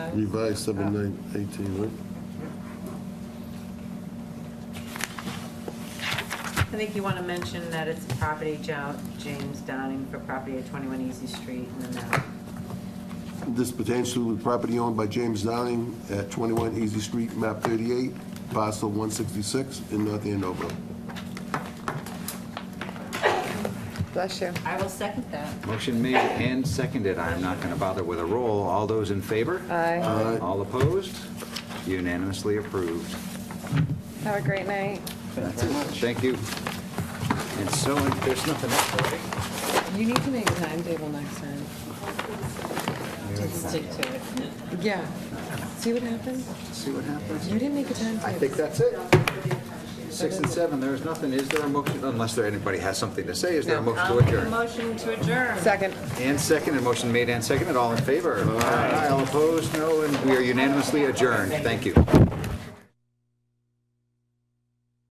revised seven nine eighteen, right? I think you want to mention that it's property Jo- James Downing for property at 21 Easy Street in the map. This pertains to the property owned by James Downing at 21 Easy Street, map 38, parcel 166 in North Andover. Bless you. I will second that. Motion made and seconded. I'm not going to bother with a roll. All those in favor? Aye. All right, All opposed? Unanimously approved. Have a great night. That's it. Thank you. And so, there's nothing else, right? You need to make a timetable next time. Just stick to it. Yeah. See what happens? See what happens? You didn't make a I timetable. think that's it. Six and seven, there is nothing. Is there a motion, unless there, anybody has something to say, is there a motion I'll to make a adjourn? motion to adjourn. Second. And second, and motion made and seconded, all in favor? Aye. All opposed, no, and we are unanimously adjourned. Thank you.